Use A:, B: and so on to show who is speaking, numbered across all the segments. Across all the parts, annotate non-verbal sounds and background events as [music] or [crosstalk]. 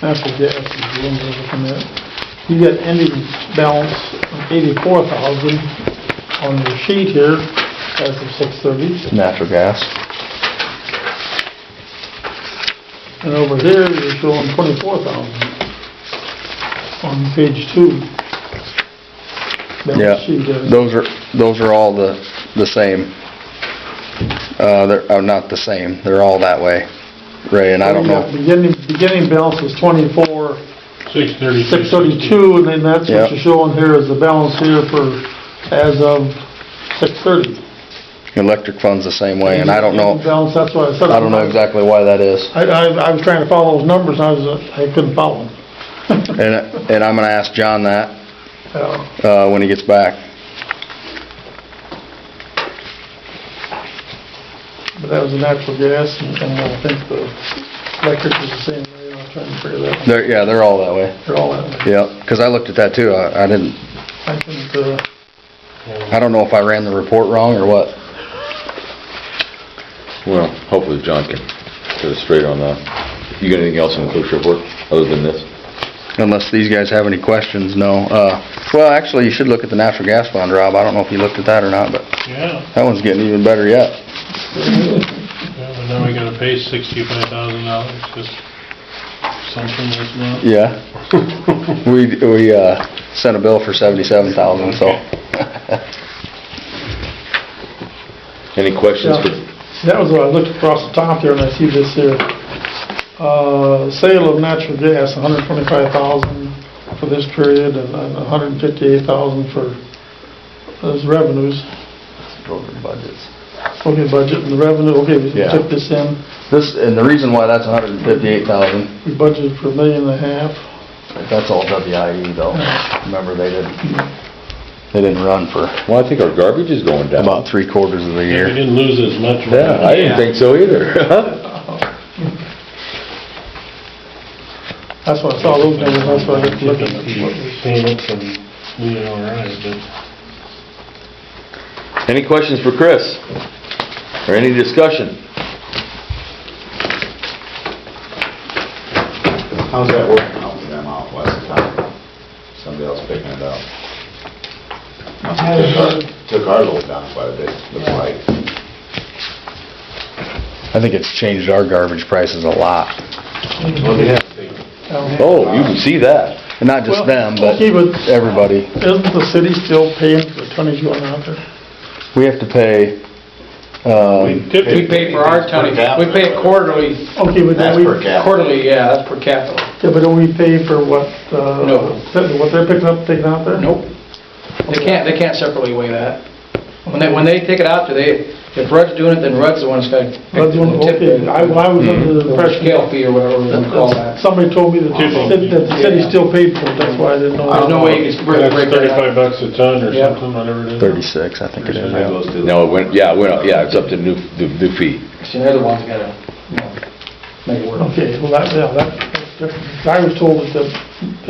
A: That's the debt, that's the loan we're looking at. You got ending balance of eighty-four thousand on your sheet here as of six thirty.
B: Natural gas.
A: And over here, you're showing twenty-four thousand on page two.
B: Yeah,
A: Balance sheet is.
B: those are, those are all the, the same. Uh, they're, oh, not the same, they're all that way, Ray, and I don't
A: You got
B: know.
A: Beginning, beginning balance is twenty-four,
C: Six thirty.
A: six thirty-two, and then that's
B: Yeah.
A: what you're showing here is the balance here for, as of six thirty.
B: Electric fund's the same way, and I don't know,
A: Balance, that's what I said.
B: I don't know exactly why that is.
A: I, I, I was trying to follow those numbers, and I was, uh, I couldn't follow them. [laughs]
B: And, and I'm gonna ask John that,
A: Uh,
B: uh, when he gets back.
A: But that was the natural gas, and and I think the electric is the same way, I'm trying to figure that, out.
B: They're, yeah, they're all that way,
A: they're all that way.
B: yeah, 'cause I looked at that too, I, I didn't,
A: I couldn't, uh,
B: I don't know if I ran the report wrong or what.
D: Well, hopefully John can get us straight on that. You got anything else on the clerk's report, other than this?
B: Unless these guys have any questions, no. Uh, well, actually, you should look at the natural gas bond, Rob, I don't know if you looked at that or not, but
C: Yeah,
B: that one's getting even better yet.
C: yeah, but then we gotta pay sixty-five thousand dollars, just something this month.
B: Yeah. We, we, uh, sent a bill for seventy-seven thousand, so.
D: Any questions for,
A: that was what I looked across the top here, and I see this here. Uh, sale of natural gas, hundred twenty-five thousand for this period, and hundred fifty-eight thousand for those revenues.
B: budgets.
A: Okay, budget and the revenue, okay, we
B: Yeah.
A: took this in,
B: This, and the reason why that's hundred and fifty-eight thousand,
A: we budgeted for a million and a half.
B: that's all WIE though. Remember, they didn't, they didn't run for
D: well, I think our garbage is going down.
B: about three quarters of the
C: We
B: year.
C: didn't lose as much.
D: Yeah, I didn't think so either.
A: That's why I saw those numbers, that's why I looked looked at them.
C: Payments and we did all right, but
D: [laughs] Any questions for Chris? Or any discussion?
E: How's that working out for them out west of town? Somebody else picking it up? Must have Took our- took our load down quite a bit, looks like.
B: I think it's changed our garbage prices a lot.
D: Oh, you can see that.
B: And not
A: Well,
B: just them, but
A: okay, but-
B: everybody.
A: Isn't the city still paying for the tonnage going out there?
B: We have to pay, um,
F: We pay for our tonnage, we pay it quarterly,
A: Okay, but then
E: That's
A: we,
E: per
A: yeah,
E: cap.
F: quarterly, yeah, that's per capita.
A: but don't we pay for what, uh,
F: No.
A: what they're picking up, taking out there?
F: Nope. They can't, they can't separately weigh that. When they, when they take it out, do they, if Rudd's doing it, then Rudd's the one that's got to
A: That's one, okay, I, I was under the [laughs]
F: Or
A: impression.
F: scale fee or whatever we want to call
A: that-
F: that.
A: Somebody told me that the
C: People.
A: city, that the city still paid for it, that's why I didn't know.
F: There's no way you can break
C: that's
F: break that
C: thirty-five
F: out.
C: bucks a ton or
F: Yeah.
C: something, whatever it is.
B: thirty-six, I think it is, yeah.
D: No, it went, yeah, it went up, yeah, it's up to new, the new fee.
F: See, they're the ones that gotta, you know, make it work.
A: Okay, well, that, yeah, that, that's different. I was told that,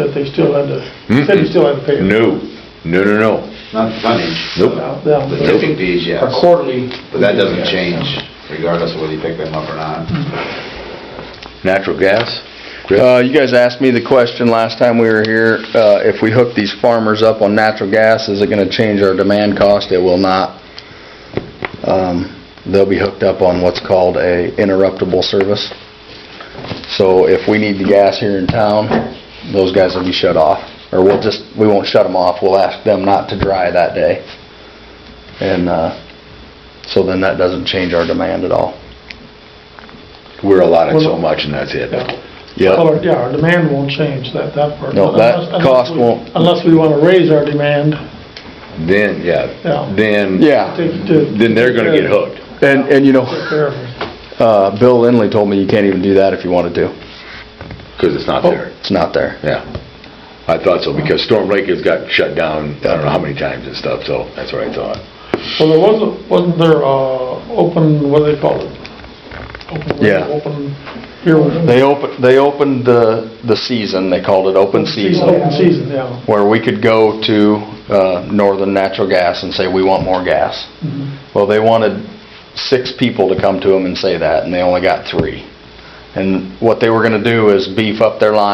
A: that they still had to, the city still had to pay. it.
D: No, no, no, no.
E: Not the tonnage.
D: Nope.
A: Now, yeah,
E: The
A: but-
E: tipping fees,
F: Or
E: yes,
F: quarterly.
E: but that doesn't change regardless of whether you pick them up or not.
D: Natural gas?
B: Uh, you guys asked me the question last time we were here, uh, if we hook these farmers up on natural gas, is it gonna change our demand cost? It will not. Um, they'll be hooked up on what's called a interruptible service. So if we need the gas here in town, those guys will be shut off, or we'll just, we won't shut them off, we'll ask them not to dry that day. And, uh, so then that doesn't change our demand at all.
D: We're allotted so much and that's it.
B: Yep.
A: Well, our- yeah, our demand won't change, that, that part.
B: No, that
A: Unless- unless
B: cost
A: we-
B: won't-
A: Unless we wanna raise our demand,
D: Then,
A: Yeah.
D: yeah, then,
B: Yeah.
A: to- to.
D: then they're gonna get hooked.
B: And, and you know,
A: Take care of it.
B: uh, Bill Lindley told me you can't even do that if you wanted to.
D: Because it's
B: Oh.
D: not there.
B: It's not there.
D: Yeah. I thought so, because Storm Lake has got shut down, I don't know how many times and stuff, so that's what I thought.
A: Well, there wasn't, wasn't there, uh, open, what do they call it? Open-
B: Yeah.
A: Open, here,
B: They open, they opened the, the season, they called it open season,
A: open season, yeah.
B: where we could go to, uh, Northern Natural Gas and say, we want more gas.
A: Mm-hmm.
B: Well, they wanted six people to come to them and say that, and they only got three. And what they were gonna do is beef up their line